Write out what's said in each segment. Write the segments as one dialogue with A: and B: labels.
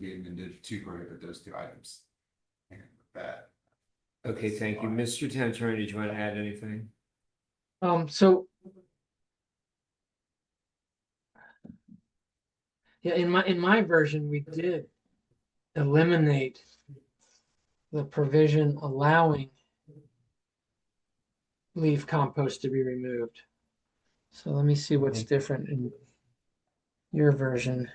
A: gave them into two prohibit those two items. And with that.
B: Okay, thank you. Mr. Town Attorney, did you want to add anything?
C: Um, so. Yeah, in my, in my version, we did eliminate the provision allowing leaf compost to be removed. So let me see what's different in your version.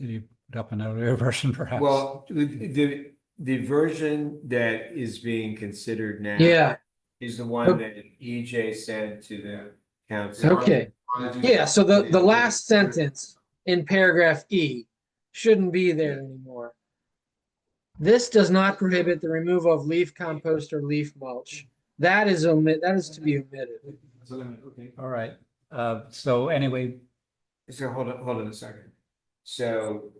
D: Did you put up an earlier version perhaps?
B: Well, the, the, the version that is being considered now.
C: Yeah,
B: Is the one that EJ sent to the council.
C: okay. Yeah, so the, the last sentence in paragraph E shouldn't be there anymore. This does not prohibit the removal of leaf compost or leaf mulch. That is omit, that is to be omitted.
A: So then, okay.
D: All right, uh, so anyway,
B: So hold on, hold on a second. So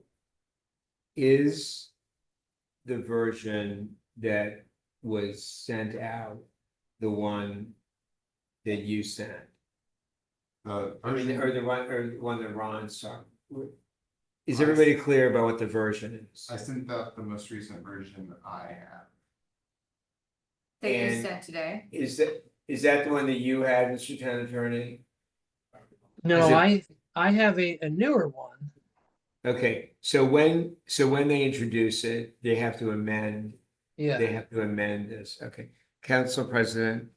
B: is the version that was sent out the one that you sent?
A: The
B: I mean,
A: version-
B: or the one, or the one that Ron saw? Is everybody clear about what the version
A: I
B: is?
A: sent out the most recent version I have.
E: that you
B: And-
E: sent today.
B: Is that, is that the one that you had, Mr. Town Attorney? Is
C: No,
B: it-
C: I, I have a, a newer one.
B: Okay, so when, so when they introduce it, they have to amend They
C: Yeah,
B: have to amend this, okay. Council President,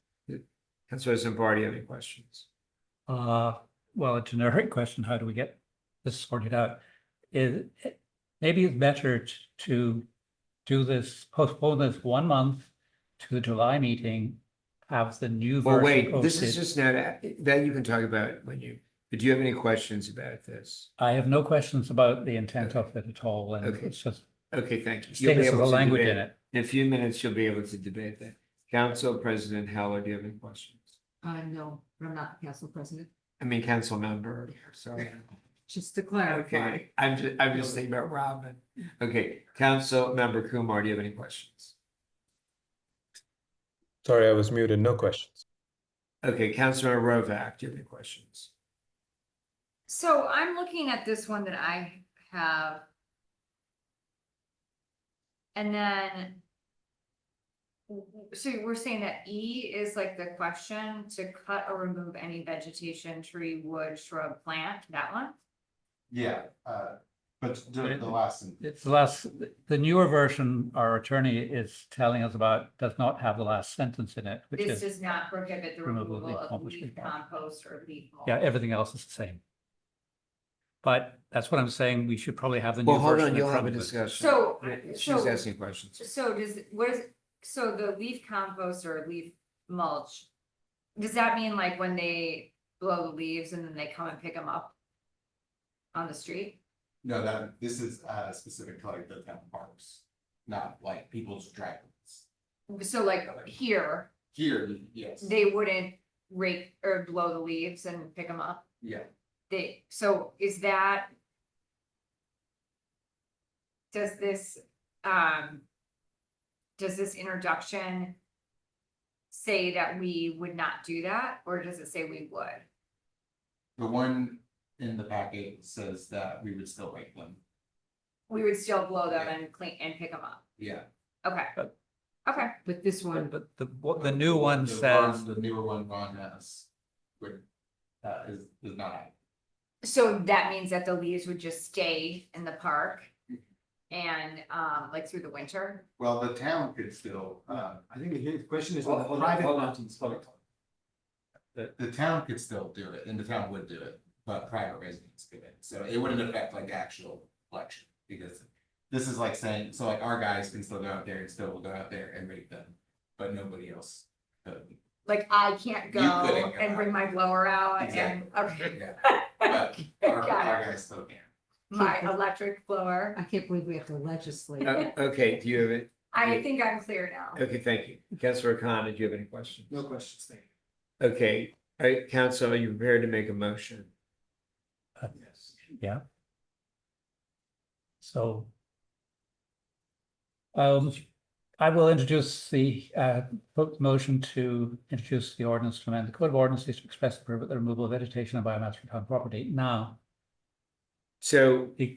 B: Council President Bar, do you have any questions?
D: uh, well, a generic question, how do we get this sorted out? Is, maybe it's better t- to do this, postpone this one month to the July meeting, have the new
B: Well,
D: version.
B: wait, this
D: posted.
B: is just not, that you can talk about when you, but do you have any questions about this?
D: I have no questions about the intent of it at all, and
B: Okay.
D: it's just
B: Okay, thank you. You'll be
D: status of
B: able
D: the
B: to
D: language in
B: debate-
D: it.
B: In a few minutes, you'll be able to debate that. Council President Heller, do you have any questions?
E: Uh, no, I'm not the council president,
B: I mean, council member, sorry.
E: just to clarify.
B: Okay, I'm just, I'm just thinking about Robin. Okay, Council Member Kumar, do you have any questions?
F: Sorry, I was muted. No questions.
B: Okay, Councilmember Rovak, do you have any questions?
E: So I'm looking at this one that I have. And then. So we're saying that E is like the question to cut or remove any vegetation, tree, wood, shrub, plant, that one?
A: Yeah, uh, but the, the last. sentence.
D: It's the last, the newer version our attorney is telling us about does not have the last sentence in it, which
E: This
D: is,
E: does not prohibit the
D: removal of
E: removal
D: leaf
E: of
D: mulch,
E: leaf
D: leaf mulch.
E: compost or leaf. mulch.
D: yeah, everything else is the same. But that's what I'm saying, we should probably have the new
B: Well, hold
D: version
B: on,
D: in
B: you'll have
D: front
B: a
D: of us.
B: discussion.
E: So,
B: Yeah, She was
E: so-
B: asking questions.
E: So does, what is, so the leaf compost or leaf mulch? Does that mean like when they blow the leaves and then they come and pick them up? On the street?
A: No, that, this is, uh, specific to like the town parks, not like people's driveways.
E: So like here,
A: Here, yes,
E: they wouldn't rake or blow the leaves and pick them up?
A: yeah,
E: They, so is that? Does this, um. Does this introduction? Say that we would not do that, or does it say we would?
A: the one in the packet says that we would still rate them,
E: We would still blow them and clean and pick them up.
A: yeah.
E: Okay.
D: But-
E: Okay,
G: But this
D: But
G: one,
D: but the, what the new one
A: The
D: says,
A: The newer one Ron has, would, uh, is, is not,
E: so that means that the leaves would just stay in the park and um like through the winter?
A: well, the town could still, uh, I think the question is.
B: Hold- hold on, hold on.
A: The, the town could still do it, and the town would do it, but private residents could, so it wouldn't affect like actual election, because. This is like saying, so like our guys can still go out there and still will go out there and rate them, but nobody else. could.
E: Like I can't go
A: You couldn't go
E: and bring my blower out and okay,
A: Yeah, But our, our guys still can.
E: my electric blower.
G: I can't believe we have to legislate.
B: Uh, Okay, do you have it?
E: I think I'm clear now.
B: Okay, thank you. Councilor Khan, did you have any questions?
A: No questions, thank
B: Okay, all right, council, are you prepared to make a motion?
A: you. Yes.
D: so. Um, I will introduce the uh vote motion to introduce the ordinance to amend the code of ordinances to express approve of the removal of vegetation and biomass from town property. Now,
B: So
D: the